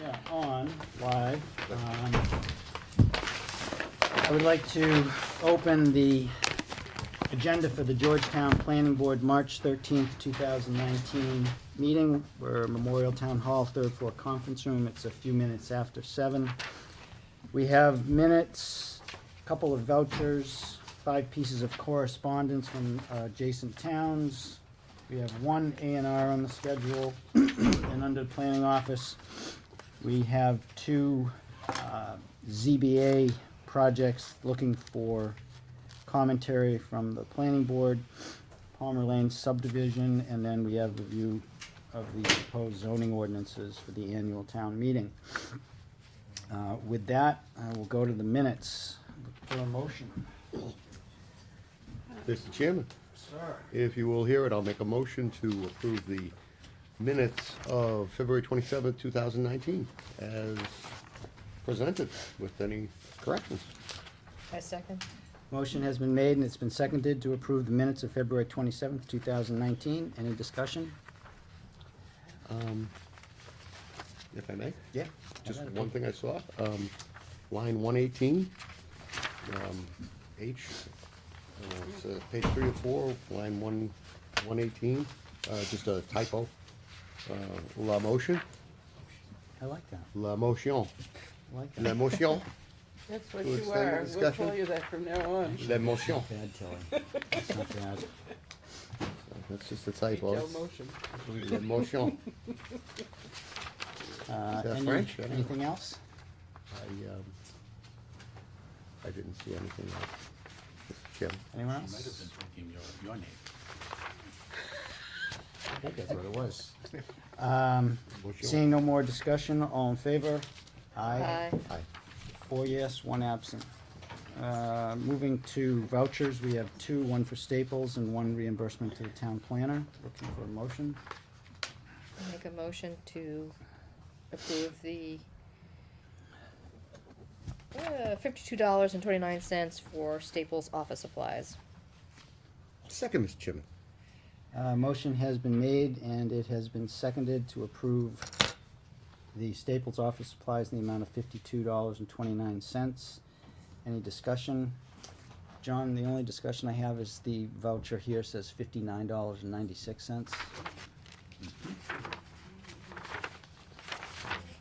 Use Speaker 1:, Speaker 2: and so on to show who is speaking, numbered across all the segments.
Speaker 1: Yeah, on, live. um, I would like to open the agenda for the Georgetown Planning Board, March thirteenth, two thousand nineteen meeting. We're Memorial Town Hall, third floor conference room. It's a few minutes after seven. We have minutes, a couple of vouchers, five pieces of correspondence from uh, adjacent towns. We have one A and R on the schedule, and under the planning office, we have two uh, ZBA projects looking for commentary from the planning board, Palmer Lane subdivision, and then we have review of the proposed zoning ordinances for the annual town meeting. Uh, With that, I will go to the minutes for a motion.
Speaker 2: Mr. Chairman,
Speaker 1: Sir.
Speaker 2: if you will hear it, I'll make a motion to approve the minutes of February twenty-seventh, two thousand nineteen, as presented with any corrections.
Speaker 3: I second.
Speaker 1: Motion has been made and it's been seconded to approve the minutes of February twenty-seventh, two thousand nineteen. Any discussion?
Speaker 2: Um, If I may?
Speaker 1: Yeah.
Speaker 2: Just
Speaker 1: I've got a
Speaker 2: one thing I saw, um, line one eighteen, um, H, uh, it's, uh, page three or four, line one, one eighteen, uh, just a typo. Uh, La motion,
Speaker 1: I like that.
Speaker 2: la motion,
Speaker 1: I like
Speaker 2: la
Speaker 1: that.
Speaker 2: motion,
Speaker 4: That's what
Speaker 2: To
Speaker 4: you
Speaker 2: extend the
Speaker 4: are. We'll
Speaker 2: discussion?
Speaker 4: call you that from now on.
Speaker 2: la motion.
Speaker 1: Bad, Tilly. It's not bad.
Speaker 2: That's just a
Speaker 4: Retail
Speaker 2: typo.
Speaker 4: motion.
Speaker 2: La motion.
Speaker 1: Uh,
Speaker 2: that
Speaker 1: any-
Speaker 2: French? I don't know.
Speaker 1: Anything else?
Speaker 2: I, um, I didn't see anything else. Mr. Chairman.
Speaker 1: Anyone
Speaker 5: You might have been
Speaker 1: else?
Speaker 5: thinking your, your name.
Speaker 1: I think that's what it was. Um, seeing no more discussion, all in favor? Aye.
Speaker 2: Aye.
Speaker 1: Four yes, one absent. Uh, moving to vouchers, we have two, one for Staples and one reimbursement to the town planner. Looking for a motion.
Speaker 3: I Make a motion to approve the uh, fifty-two dollars and twenty-nine cents for Staples office supplies.
Speaker 2: Second, Mr. Chairman.
Speaker 1: Uh, motion has been made and it has been seconded to approve the Staples office supplies in the amount of fifty-two dollars and twenty-nine cents. Any discussion? John, the only discussion I have is the voucher here says fifty-nine dollars and ninety-six cents.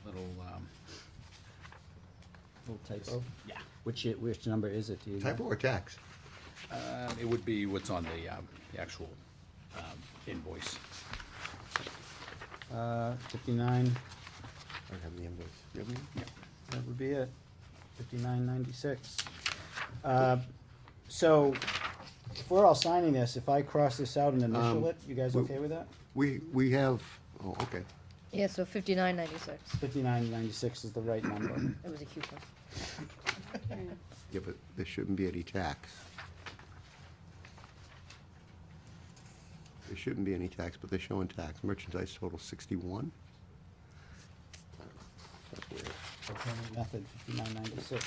Speaker 5: Little, um,
Speaker 1: Little typo.
Speaker 5: yeah.
Speaker 1: Which, it- which number is it? Do you know?
Speaker 2: Typo or tax?
Speaker 5: Um, it would be what's on the, um, the actual, um, invoice.
Speaker 1: Uh, fifty-nine,
Speaker 2: I don't have the invoice. You have any?
Speaker 1: that would be it. Fifty-nine ninety-six. Uh, so if we're all signing this, if I cross this out and initial
Speaker 2: Um,
Speaker 1: it, you guys
Speaker 2: we-
Speaker 1: okay with that?
Speaker 2: We, we have, oh, okay.
Speaker 3: Yeah, so fifty-nine ninety-six.
Speaker 1: Fifty-nine ninety-six is the right number.
Speaker 3: It was a coupon.
Speaker 2: Yeah, but there shouldn't be any tax. There shouldn't be any tax, but they're showing tax. Merchandise total sixty-one? That's weird.
Speaker 1: Method fifty-nine ninety-six.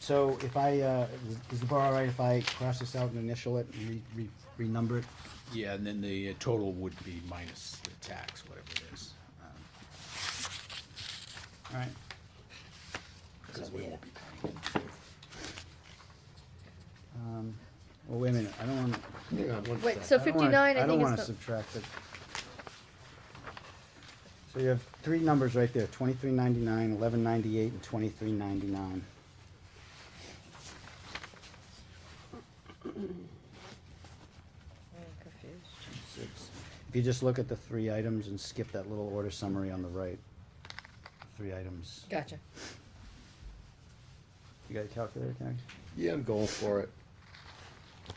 Speaker 1: So if I, uh, is- is the bar all right if I cross this out and initial it and re, re, renumber it?
Speaker 5: Yeah, and then the uh, total would be minus the tax, whatever it is. um,
Speaker 1: All right.
Speaker 5: Cause we won't be paying it.
Speaker 1: Um, well, wait a minute, I don't wanna,
Speaker 2: Hang on one
Speaker 3: Wait,
Speaker 2: sec.
Speaker 1: I
Speaker 3: so
Speaker 1: don't wanna-
Speaker 3: fifty-nine, I
Speaker 1: don't
Speaker 3: think
Speaker 1: wanna
Speaker 3: is the,
Speaker 1: subtract it. So you have three numbers right there, twenty-three ninety-nine, eleven ninety-eight, and twenty-three ninety-nine.
Speaker 3: I'm confused.
Speaker 1: If you just look at the three items and skip that little order summary on the right, three items.
Speaker 3: Gotcha.
Speaker 1: You got a calculator, Karen?
Speaker 2: Yeah, I'm going for it.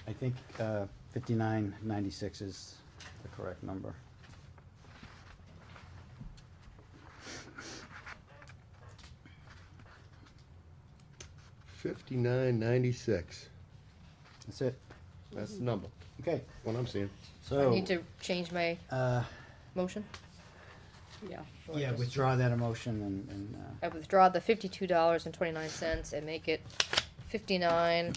Speaker 1: I think uh, fifty-nine ninety-six is the correct number.
Speaker 2: Fifty-nine ninety-six.
Speaker 1: That's it.
Speaker 2: That's the number,
Speaker 1: Okay,
Speaker 2: what I'm seeing.
Speaker 3: I
Speaker 1: so.
Speaker 3: need to change my
Speaker 1: uh,
Speaker 3: motion.
Speaker 4: Yeah.
Speaker 1: Yeah, withdraw that emotion and, and, uh,
Speaker 3: I withdraw the fifty-two dollars and twenty-nine cents and make it fifty-nine